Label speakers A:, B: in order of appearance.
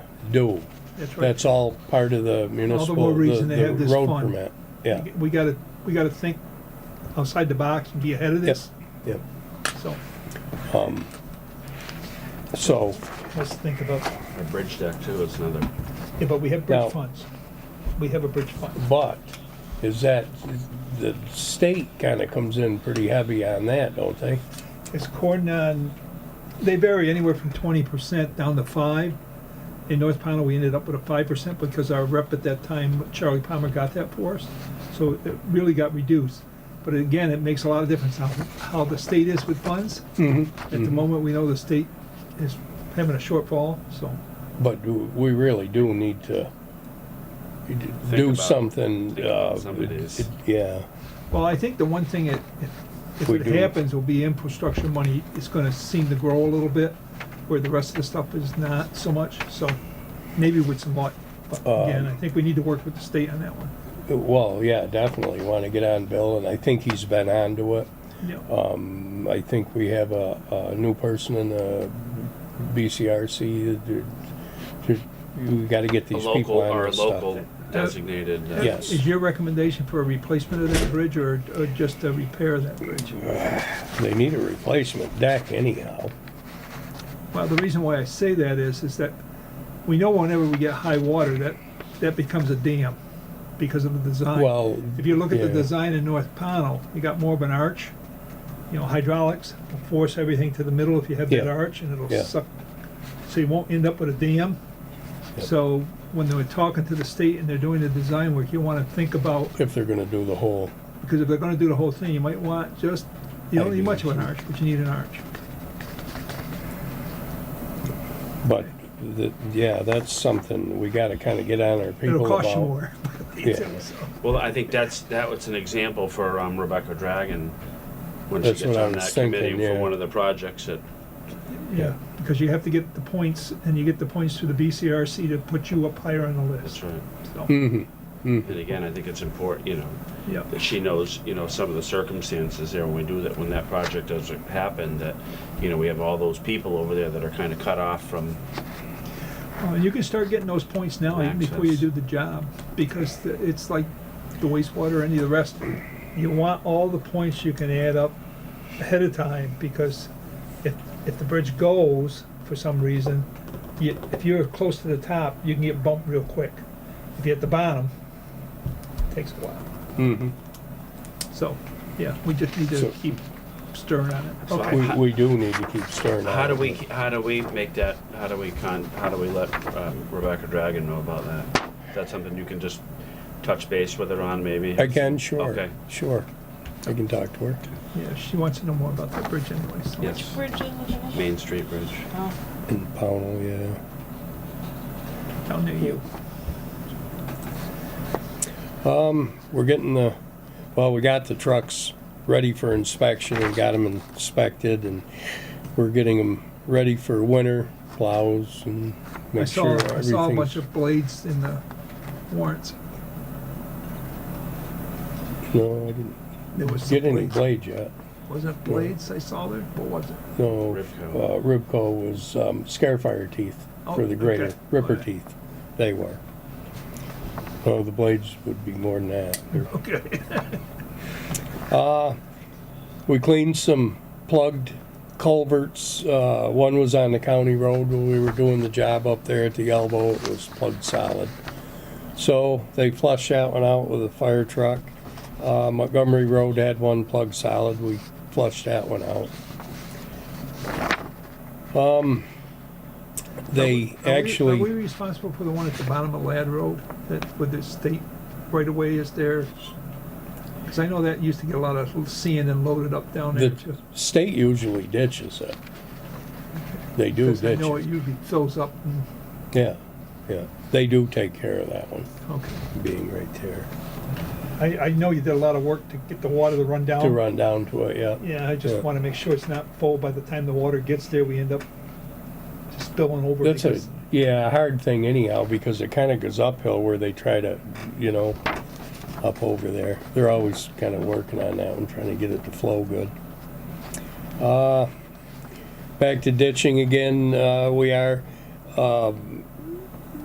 A: do.
B: That's right.
A: That's all part of the municipal, the
B: reason they
A: the
B: have this
A: road
B: fund.
A: permit. Yeah,
B: We gotta, we gotta think outside the box and be ahead of this,
A: yes, yeah.
B: so
A: So,
B: let's think about,
C: Our bridge deck too, it's another,
B: yeah, but we have
A: Now-
B: bridge funds. We have a bridge fund.
A: but is that, the state kind of comes in pretty heavy on that, don't they?
B: It's cordon on, they vary anywhere from twenty percent down to five. In North Pownell, we ended up with a five percent because our rep at that time, Charlie Palmer, got that for us. So it really got reduced. But again, it makes a lot of difference how, how the state is with funds.
C: Mm-hmm.
B: At the
A: Mm-hmm.
B: moment, we know the state is having a shortfall, so.
A: But do- we really do need to do
C: about-
A: something,
C: think
A: uh,
C: about some of these.
A: yeah,
B: Well, I think the one thing that, if- if
A: We
B: it
A: do.
B: happens, will be infrastructure money is gonna seem to grow a little bit, where the rest of the stuff is not so much, so maybe with some luck. But
A: Uh,
B: again, I think we need to work with the state on that one.
A: well, yeah, definitely want to get on Bill, and I think he's been on to it.
B: Yeah.
A: Um, I think we have a, a new person in the BCRC. that- that- We gotta get
C: a
A: these people
C: local
A: on
C: or a
A: this stuff.
C: local designated. uh,
A: Yeah. yes.
B: Is your recommendation for a replacement of that bridge, or, or just a repair of that bridge?
A: They need a replacement deck anyhow.
B: Well, the reason why I say that is, is that we know whenever we get high water, that, that becomes a dam because of the design.
A: Well,
B: If you look at the
A: yeah.
B: design in North Pownell, you got more of an arch, you know, hydraulics will force everything to the middle if you have that
A: Yeah.
B: arch and
A: Yeah.
B: it'll suck. So you won't end up with a dam.
A: Yep.
B: So when they were talking to the state and they're doing the design work, you wanna think about,
A: If they're gonna do the whole,
B: because if they're gonna do the whole thing, you might want just, you
A: I
B: don't need
A: agree
B: much of
A: with
B: an
A: you.
B: arch, but you need an arch.
A: but, the, yeah, that's something we gotta kinda get on our people
B: It'll
A: about.
B: cost you more.
A: Yeah.
B: So,
C: Well, I think that's, that was an example for um, Rebecca Dragon, when she
A: That's
C: gets
A: what I
C: on
A: was
C: that committee
A: thinking, yeah.
C: for one of the projects that,
B: Yeah, because you have to get the points and you get the points through the BCRC to put you up higher on the
C: that's
B: list,
C: right.
B: so,
A: Mhm.
C: And again, I think it's important, you know,
B: yeah.
C: that she knows, you know, some of the circumstances there when we do that, when that project does happen, that, you know, we have all those people over there that are kind of cut off from,
B: Uh, you can start getting those points now, even before you
C: Access.
B: do the job, because the- it's like the wastewater, any of the rest. You want all the points you can add up ahead of time, because if, if the bridge goes for some reason, you, if you're close to the top, you can get bumped real quick. If you're at the bottom, it takes a while.
A: Mhm.
B: So, yeah, we just need to
A: So-
B: keep stirring on it.
C: So I-
B: Okay.
A: We, we do need to keep stirring.
C: how do
A: on
C: we,
A: it.
C: how do we make that, how do we con, how do we let um, Rebecca Dragon know about that? Is that something you can just touch base with her on maybe?
A: Again, sure,
C: Okay.
A: sure. I can talk to her.
B: Yeah, she wants to know more about that bridge anyway, so.
C: Yes, Main Street Bridge.
A: In Pownell, yeah.
B: Down near you.
A: Um, We're getting the, well, we got the trucks ready for inspection and got them inspected and we're getting them ready for winter plows and
B: I
A: make
B: saw,
A: sure
B: I saw a
A: everything's.
B: bunch of blades in the warrants.
A: No, I didn't
B: There was some
A: get any
B: blades.
A: blade yet.
B: Was it blades I saw there? What was it?
A: No,
C: Ribco.
A: uh, Ribco was, um, scarefire teeth for
B: Oh,
A: the greater,
B: okay.
A: ripper
B: Okay.
A: teeth, they were. Oh, the blades would be more than that. They're
B: Okay.
A: We cleaned some plugged culverts. Uh, one was on the county road when we were doing the job up there at the elbow. It was plugged solid. So they flushed that one out with a fire truck. Uh, Montgomery Road had one plugged solid. We flushed that one out. Um, they
B: Are we-
A: actually.
B: Are we responsible for the one at the bottom of Lad Road that with the state right away is there? Because I know that used to get a lot of sand and loaded up down there.
A: The
B: just-
A: state usually ditches it. They do
B: Because I
A: ditch
B: know it
A: it.
B: usually fills up and,
A: Yeah, yeah. They do take care of that one,
B: okay.
A: being right there.
B: I, I know you did a lot of work to get the water to run down.
A: to run down to it, yeah.
B: Yeah, I
A: Yeah.
B: just want to make sure it's not full by the time the water gets there, we end up just spilling over.
A: That's a,
B: because-
A: yeah, a hard thing anyhow, because it kinda goes uphill where they try to, you know, up over there. They're always kinda working on that one, trying to get it to flow good. Uh, back to ditching again, uh, we are, um,